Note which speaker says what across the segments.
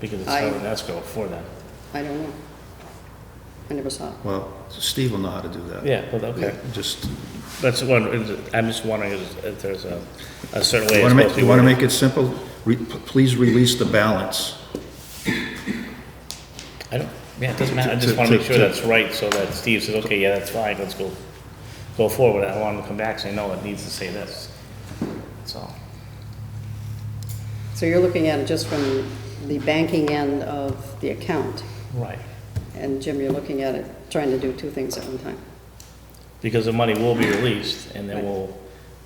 Speaker 1: because it's
Speaker 2: I-
Speaker 1: held in escrow for them.
Speaker 2: I don't know. I never saw it.
Speaker 3: Well, Steve will know how to do that.
Speaker 1: Yeah, well, okay.
Speaker 3: Just,
Speaker 1: That's one, I'm just wondering if if there's a, a certain way
Speaker 3: you
Speaker 1: it's supposed
Speaker 3: want to make,
Speaker 1: to be
Speaker 3: you want to
Speaker 1: worded.
Speaker 3: make it simple? Re- p- Please release the balance.
Speaker 1: I don't, yeah, it doesn't matter, I
Speaker 3: To-
Speaker 1: just
Speaker 3: to-
Speaker 1: wanna make sure
Speaker 3: to-
Speaker 1: that's right, so that Steve says, okay, yeah, that's fine, let's go, go forward, I want him to come back, and say, no, it needs to say this, so.
Speaker 2: So you're looking at it just from the banking end of the account,
Speaker 1: Right.
Speaker 2: and Jim, you're looking at it, trying to do two things at one time.
Speaker 1: Because the money will be released, and then we'll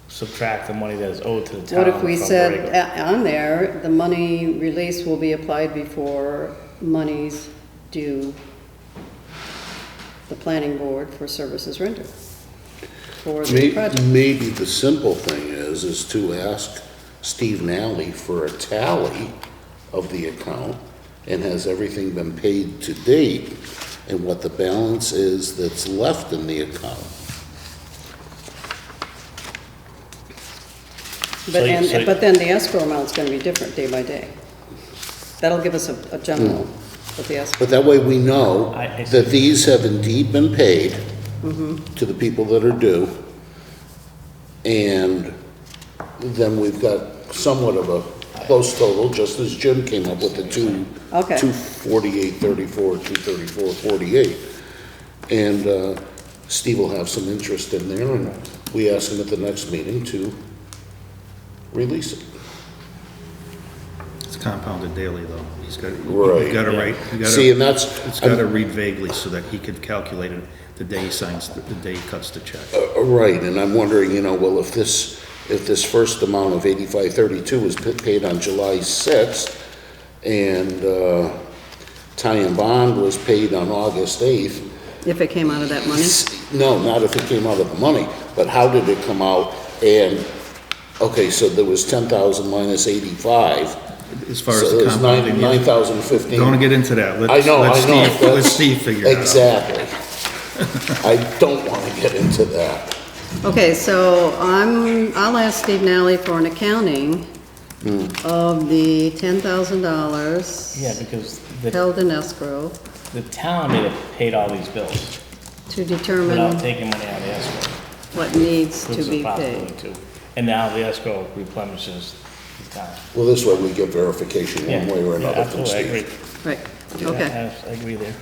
Speaker 1: subtract the money that is owed to the town.
Speaker 2: What if we
Speaker 1: from the
Speaker 2: said
Speaker 1: regular-
Speaker 2: a- on there, the money release will be applied before monies due the planning board for services rendered for the
Speaker 4: May-
Speaker 2: project?
Speaker 4: Maybe the simple thing is, is to ask Steve Nally for a tally of the account, and has everything been paid to date, and what the balance is that's left in the account.
Speaker 1: So
Speaker 2: But
Speaker 1: you- so
Speaker 2: then,
Speaker 1: you-
Speaker 2: but then the escrow amount's gonna be different day by day. That'll give us a, a general, but the escrow,
Speaker 4: But that way we know
Speaker 1: I- I see. Mm-hmm.
Speaker 4: that these have indeed been paid to the people that are due, and then we've got somewhat of a close total, just as Jim came up with the two,
Speaker 2: Okay.
Speaker 4: two forty-eight thirty-four, two thirty-four forty-eight. And uh, Steve will have some interest in there, and we ask him at the next meeting to release it.
Speaker 3: It's compounded daily, though. He's got,
Speaker 4: Right.
Speaker 3: you've got to write, you got
Speaker 4: See, and
Speaker 3: to,
Speaker 4: that's.
Speaker 3: it's got to read vaguely so that he can calculate it the day he signs, the the day he cuts the check.
Speaker 4: Uh, Right, and I'm wondering, you know, well, if this, if this first amount of eighty-five thirty-two was pa- paid on July sixth, and, uh, tie and bond was paid on August eighth,
Speaker 2: if it came out of that money.
Speaker 4: no, not if it came out of the money, but how did it come out? And, okay, so there was ten thousand minus eighty-five,
Speaker 3: As far as
Speaker 4: so
Speaker 3: the
Speaker 4: there's
Speaker 3: compounding.
Speaker 4: nine,
Speaker 3: yeah.
Speaker 4: nine thousand fifteen.
Speaker 3: Don't get uh, into that.
Speaker 4: I
Speaker 3: Let's-
Speaker 4: know, I
Speaker 3: let
Speaker 4: know.
Speaker 3: Steve- Let
Speaker 4: that's-
Speaker 3: Steve figure it out.
Speaker 4: Exactly. I don't wanna get into that.
Speaker 2: Okay, so I'm, I'll ask Steve Nally for an accounting of the ten thousand dollars
Speaker 1: Yeah, because the,
Speaker 2: held in escrow
Speaker 1: the town made it, paid all these bills,
Speaker 2: to
Speaker 1: without
Speaker 2: determine
Speaker 1: taking money out of the escrow.
Speaker 2: what needs to
Speaker 1: Proves
Speaker 2: be
Speaker 1: a
Speaker 2: paid.
Speaker 1: possibility too. And now the escrow replenishes the town.
Speaker 4: Well, this way we get verification
Speaker 1: Yeah,
Speaker 4: one way or
Speaker 1: yeah,
Speaker 4: another from
Speaker 1: absolutely, I agree.
Speaker 4: Steve.
Speaker 2: Right,
Speaker 1: Yeah,
Speaker 2: okay.
Speaker 1: I- I agree there.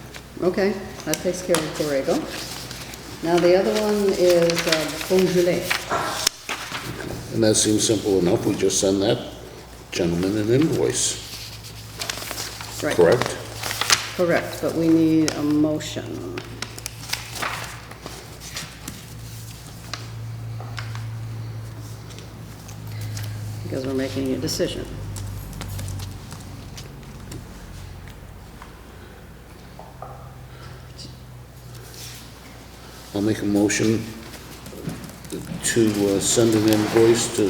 Speaker 2: Okay, that takes care of Borrego. Now, the other one is uh, Beaujolais.
Speaker 4: And that seems simple enough, we just send that gentleman an invoice,
Speaker 2: Right,
Speaker 4: correct?
Speaker 2: Correct, but we need a motion. Because we're making a decision.
Speaker 4: I'll make a motion to uh, send an invoice to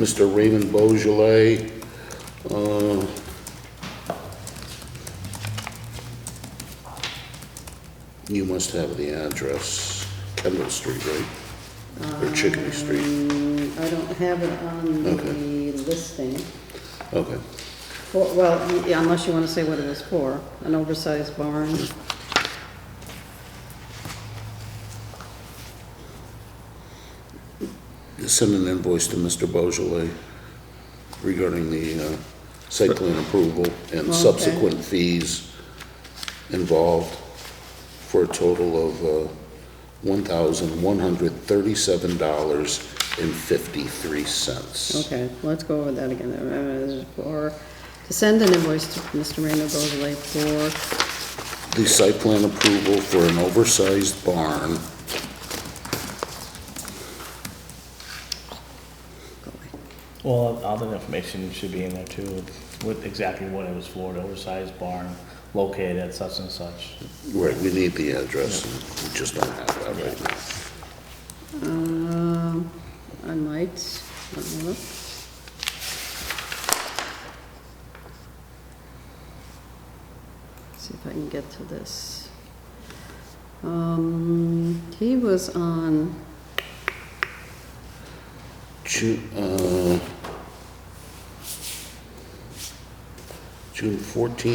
Speaker 4: Mr. Raymond Beaujolais, uh, you must have the address, Kendall Street, right? Or Chickadee Street,
Speaker 2: Mm, I don't have it on
Speaker 4: Okay.
Speaker 2: the listing.
Speaker 4: okay.
Speaker 2: For- Well, y- yeah, unless you want to say what it was for, an oversized barn.
Speaker 4: send an invoice to Mr. Beaujolais regarding the uh, site plan approval and
Speaker 2: Okay.
Speaker 4: subsequent fees involved for a total of uh, $1,137.53.
Speaker 2: Okay, let's go over that again. Uh, For, to send an invoice to Mr. Randall Beaujolais for,
Speaker 4: The site plan approval for an oversized barn
Speaker 1: Well, all the information should be in there too, with- with exactly what it was for, the oversized barn, located at such and such.
Speaker 4: Right, we need the address, and we just don't have that right now.
Speaker 2: um, I might, let me look. See if I can get to this. Um, he was on,
Speaker 4: Ju- uh, June 14th